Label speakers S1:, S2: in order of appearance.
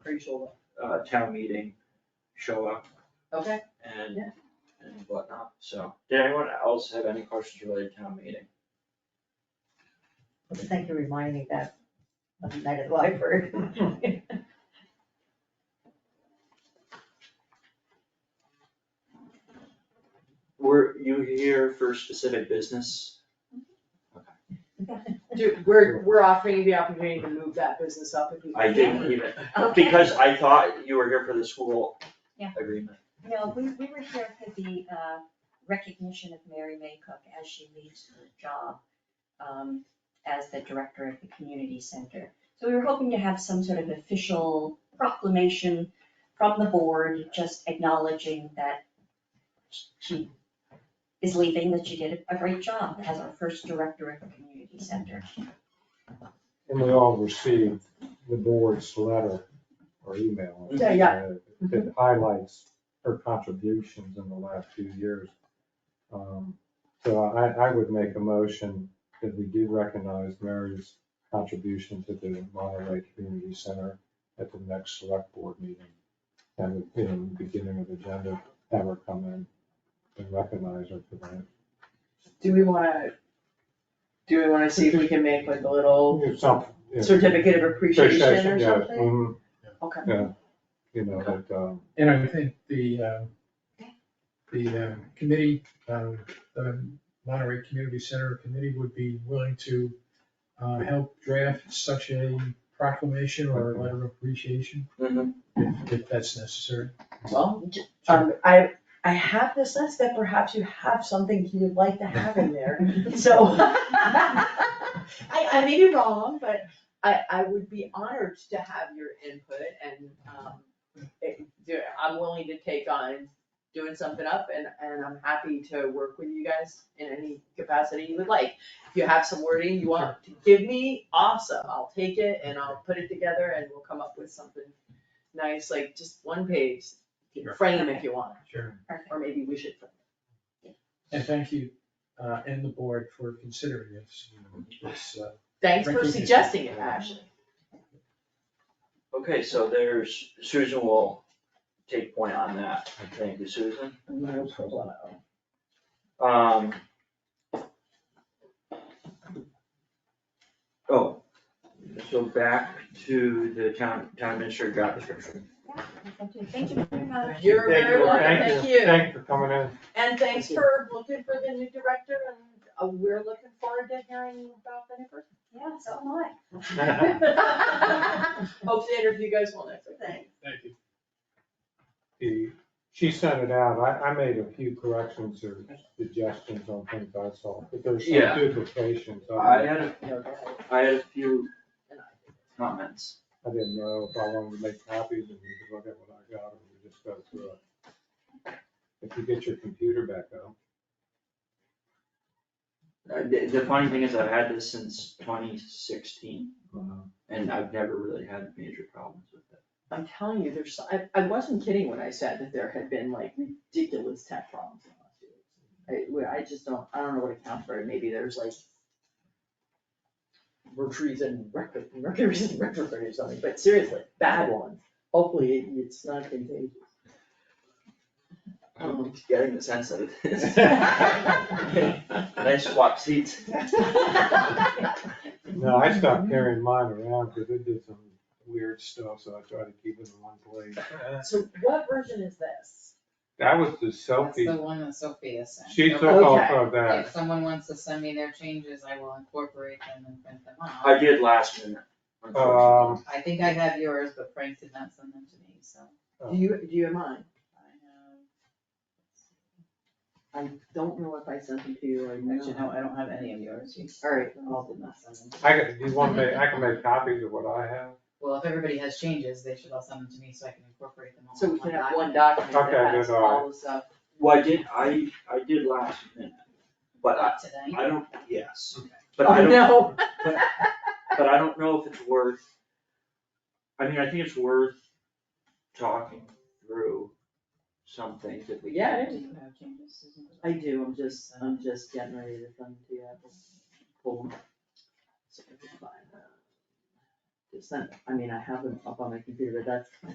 S1: Crucial,
S2: uh, town meeting, show up
S1: okay,
S2: and,
S1: Yeah.
S2: and whatnot, so. Did anyone else have any questions related to town meeting?
S3: Well, Thank you for reminding me that, of the night at the library.
S2: Were you here for specific business?
S1: Dude, we're, we're offering you the opportunity to move that business up if you.
S2: I didn't even, because I thought you were here for the school
S4: Yeah.
S2: agreement.
S4: No, we, we were here for the, uh, recognition of Mary May Cook as she leaves her job, um, as the director of the community center. So we were hoping to have some sort of official proclamation from the board, just acknowledging that she is leaving, that she did a great job as our first director of the community center.
S5: And we all received the board's letter or email. I think,
S1: Yeah, yeah.
S5: uh, That highlights her contributions in the last few years. Um, So I, I would make a motion that we do recognize Mary's contribution to the Monterey Community Center at the next select board meeting. And in the beginning of the agenda, have her come in and recognize her for that.
S1: Do we wanna, do we wanna see if we can make like a little
S5: It's something, yeah.
S1: certificate of appreciation or
S5: Appreciation, yeah,
S1: something?
S5: mhm,
S1: Okay.
S5: Yeah, you know, that, um,
S6: And I think the, uh, the uh, committee, uh, the Monterey Community Center Committee would be willing to uh, help draft such a proclamation or a letter of appreciation if if that's necessary.
S1: Well, um, I, I have this list that perhaps you have something you would like to have in there, so. I, I may be wrong, but I, I would be honored to have your input and, um, it- do- I'm willing to take on doing something up and, and I'm happy to work with you guys in any capacity you would like. If you have some wording you want to give me, awesome, I'll take it and I'll put it together and we'll come up with something nice, like just one page,
S6: Sure.
S1: frame if you want,
S6: Sure.
S1: or maybe we should.
S6: And thank you, uh, and the board for considering this. It's, uh,
S1: Thanks for
S6: Thank you.
S1: suggesting it, Ashley.
S2: Okay, so there's, Susan will take point on that. Thank you, Susan. Um. Oh, so back to the town, town administrator job description.
S4: Thank you very much.
S1: You're
S5: Thank
S1: very
S5: you.
S1: welcome,
S5: Thank
S1: thank you.
S5: Thank you for coming in.
S1: And thanks
S5: Thank you.
S1: for looking for the new director and uh, we're looking forward to hearing about the new
S4: Yeah, so am I.
S1: person. Hope to interview you guys well next week.
S6: Thank you.
S5: The, she sent it out, I, I made a few corrections or suggestions on things I saw, but there's
S2: Yeah.
S5: some duplications,
S2: I
S5: I,
S2: had, a
S1: No, go ahead.
S2: I had a few
S1: And I-
S2: comments.
S5: I didn't know if I wanted to make copies and you could look at what I got, and we just go through it. If you get your computer back up,
S2: Uh, The, the funny thing is I've had this since twenty sixteen
S1: Uh-huh.
S5: uh,
S2: and I've never really had major problems with it.
S1: I'm telling you, there's, so- I, I wasn't kidding when I said that there had been like ridiculous tech problems. in the last few weeks. I, we- I just don't, I don't know what accounts for it, maybe there's like Mercury's in record, Mercury's in retrograde or something, but seriously, bad ones, hopefully it- it's not contagious.
S2: I'm getting the sense that it is.
S6: uh,
S1: Um.
S2: Nice swap seats.
S5: no, I stopped carrying mine around, cause it did some weird stuff, so I tried to keep it in one place.
S1: So what version is this?
S5: That was the
S7: That's the
S5: selfie,
S7: one that Sophia sent.
S5: she took
S7: So
S5: off
S1: Okay.
S5: of that.
S7: If someone wants to send me their changes, I will incorporate them and print them
S2: I
S7: off.
S2: did last minute. unfortunately.
S5: Um,
S7: I think I have yours, but Frank did not send them to me, so
S1: Do you, do you have mine?
S7: I have,
S1: I don't know if I sent them to you or not.
S7: actually, no, I don't have any of yours. You-
S1: Alright,
S7: Paul did not send them. to me.
S5: I could, do you want me, I can make copies of what I have.
S7: Well, if everybody has changes, they should all send them to me so I can incorporate them all.
S1: so
S7: in
S1: we can have
S7: document.
S1: one document
S5: Okay,
S1: that has
S5: good, alright.
S1: all the stuff.
S2: Well, I did, I, I did last minute, but I,
S7: Not Today.
S2: I don't, yes,
S7: Okay.
S2: but I
S1: Oh,
S2: don't,
S1: no.
S2: but I don't know if it's worth. I mean, I think it's worth talking through some things that we.
S1: Yeah, it
S7: Do you have changes? Susan?
S1: I do, I'm just, I'm just getting ready to send to you, I'll pull. them. So I can find them. It's not, I mean, I have them up on my computer, but that's